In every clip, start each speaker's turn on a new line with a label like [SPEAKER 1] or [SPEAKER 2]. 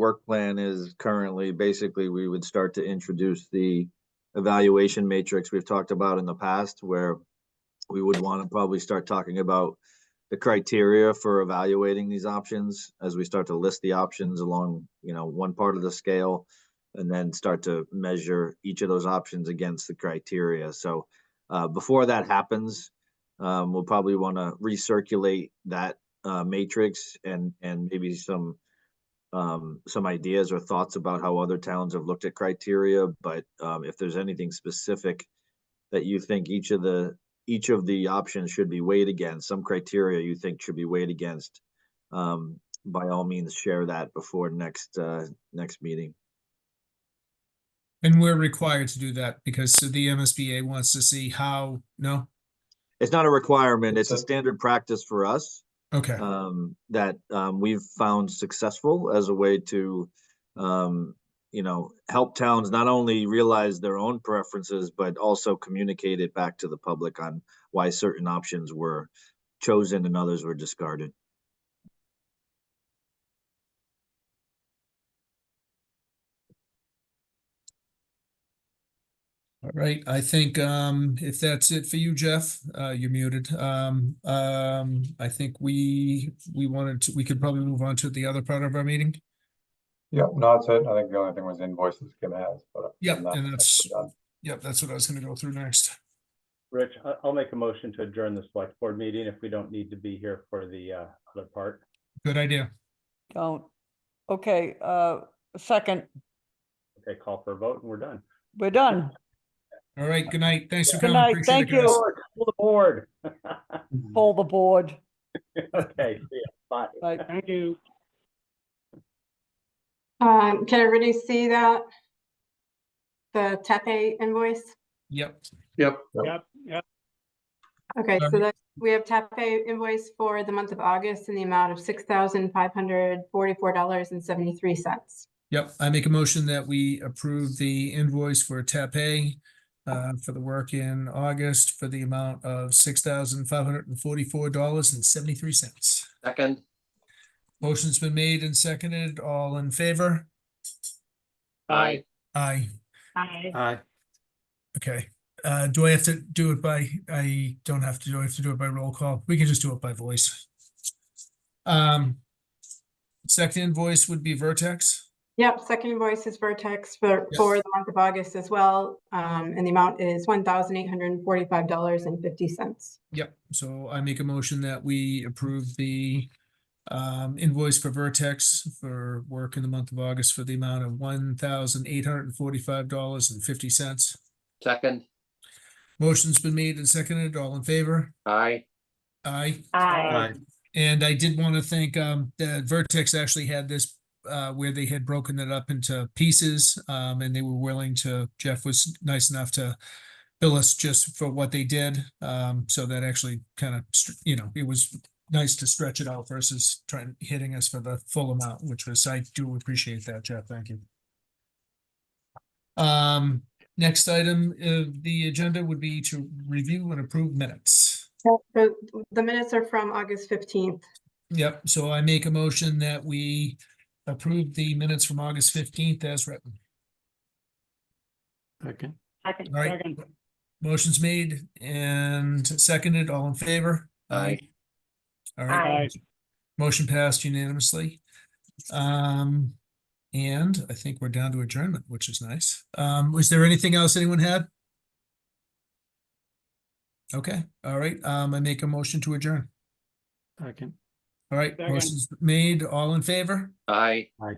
[SPEAKER 1] work plan is currently, basically, we would start to introduce the evaluation matrix we've talked about in the past where we would want to probably start talking about the criteria for evaluating these options as we start to list the options along, you know, one part of the scale and then start to measure each of those options against the criteria. So uh, before that happens, um, we'll probably want to recirculate that uh, matrix and, and maybe some um, some ideas or thoughts about how other towns have looked at criteria, but um, if there's anything specific that you think each of the, each of the options should be weighed against, some criteria you think should be weighed against, um, by all means, share that before next, uh, next meeting.
[SPEAKER 2] And we're required to do that because the MSBA wants to see how, no?
[SPEAKER 1] It's not a requirement, it's a
[SPEAKER 3] Okay.
[SPEAKER 1] standard practice for us.
[SPEAKER 2] Okay,
[SPEAKER 1] um, that um, we've found successful as a way to, um, you know, help towns not only realize their own preferences, but also communicate it back to the public on why certain options were chosen and others were discarded.
[SPEAKER 2] all right. I think um if that's it for you, Jeff, uh you're muted. Um um I think we we wanted to, we could probably move on to the other part of our meeting.
[SPEAKER 3] Yeah, no, that's it. I think the only thing was invoices Kim has, but.
[SPEAKER 2] Yep,
[SPEAKER 3] I'm not-
[SPEAKER 2] and that's-
[SPEAKER 3] done.
[SPEAKER 2] Yep, that's what I was gonna go through next.
[SPEAKER 4] Rich, I- I'll make a motion to adjourn the select board meeting if we don't need to be here for the uh, other part.
[SPEAKER 2] Good idea.
[SPEAKER 5] Don't. Okay, uh, second,
[SPEAKER 4] Okay, call for a vote and we're done.
[SPEAKER 5] we're done.
[SPEAKER 2] All right, good night. Thanks for
[SPEAKER 5] Good
[SPEAKER 2] coming.
[SPEAKER 5] night,
[SPEAKER 2] Appreciate it,
[SPEAKER 5] thank you.
[SPEAKER 2] guys.
[SPEAKER 4] Forward, pull the board.
[SPEAKER 5] Pull the board.
[SPEAKER 4] Okay, see ya. Bye.
[SPEAKER 5] Like,
[SPEAKER 4] Thank you.
[SPEAKER 6] Um, can everybody see that? The Tepe invoice?
[SPEAKER 2] Yep,
[SPEAKER 3] Yep.
[SPEAKER 6] Okay, so
[SPEAKER 2] Um,
[SPEAKER 6] that, we have Tepe invoice for the month of August in the amount of six thousand five hundred forty-four dollars and seventy-three cents.
[SPEAKER 2] yep. I make a motion that we approve the invoice for Tape uh for the work in August for the amount of six thousand five hundred and forty-four dollars and seventy-three cents.
[SPEAKER 7] Second,
[SPEAKER 2] Motion's been made and seconded. All in favor?
[SPEAKER 7] aye,
[SPEAKER 2] Aye.
[SPEAKER 6] Aye.
[SPEAKER 4] Aye.
[SPEAKER 2] Okay. Uh, do I have to do it by, I don't have to, do I have to do it by roll call? We can just do it by voice. Um, second invoice would be Vertex.
[SPEAKER 6] Yep, second invoice is Vertex for, for the month of August as well, um, and the amount is one thousand eight hundred and forty-five dollars and fifty cents.
[SPEAKER 2] Yep. So I make a motion that we approve the um, invoice for Vertex for work in the month of August for the amount of one thousand eight hundred and forty-five dollars and fifty cents.
[SPEAKER 7] second,
[SPEAKER 2] Motion's been made and seconded. All in favor?
[SPEAKER 7] aye,
[SPEAKER 2] Aye.
[SPEAKER 5] Aye.
[SPEAKER 2] And I did want to thank, um, that Vertex actually had this, uh, where they had broken it up into pieces. Um, and they were willing to, Jeff was nice enough to bill us just for what they did. Um, so that actually kind of, you know, it was nice to stretch it out versus trying, hitting us for the full amount, which was, I do appreciate that, Jeff. Thank you. Um, next item of the agenda would be to review and approve minutes.
[SPEAKER 6] So the minutes are from August fifteenth.
[SPEAKER 2] Yep, so I make a motion that we approve the minutes from August fifteenth as written. All right. Motion's made and seconded, all in favor?
[SPEAKER 7] aye,
[SPEAKER 2] All right. Motion passed unanimously. Um, and I think we're down to adjournment, which is nice. Um, was there anything else anyone had? Okay, all right, um, I make a motion to adjourn.
[SPEAKER 8] Second.
[SPEAKER 2] All right,
[SPEAKER 8] Second.
[SPEAKER 2] motion's made, all in favor?
[SPEAKER 7] aye.
[SPEAKER 2] Aye.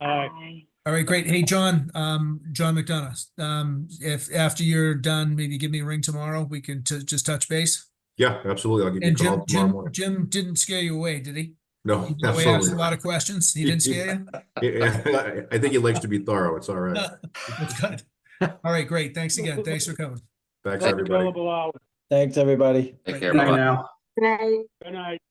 [SPEAKER 8] Aye.
[SPEAKER 2] All right, great. Hey, John, um, John McDonough, um, if, after you're done, maybe give me a ring tomorrow. We can t- just touch base.
[SPEAKER 9] Yeah, absolutely. I'll give you a
[SPEAKER 2] And Jim,
[SPEAKER 9] call tomorrow
[SPEAKER 2] Jim,
[SPEAKER 9] morning.
[SPEAKER 2] Jim didn't scare you away, did he?
[SPEAKER 9] No,
[SPEAKER 2] Even though I asked
[SPEAKER 9] absolutely.
[SPEAKER 2] a lot of questions. He didn't scare you?
[SPEAKER 9] Yeah, yeah. I think he likes to be thorough. It's all
[SPEAKER 2] Uh,
[SPEAKER 9] right.
[SPEAKER 2] That's Good. All right, great. Thanks again. Thanks for coming.
[SPEAKER 9] Thanks, everybody.
[SPEAKER 8] Billable hours.
[SPEAKER 10] Thanks, everybody.
[SPEAKER 7] Take care,
[SPEAKER 8] Bye
[SPEAKER 7] bye.
[SPEAKER 8] now.
[SPEAKER 6] Good night.
[SPEAKER 8] Good night.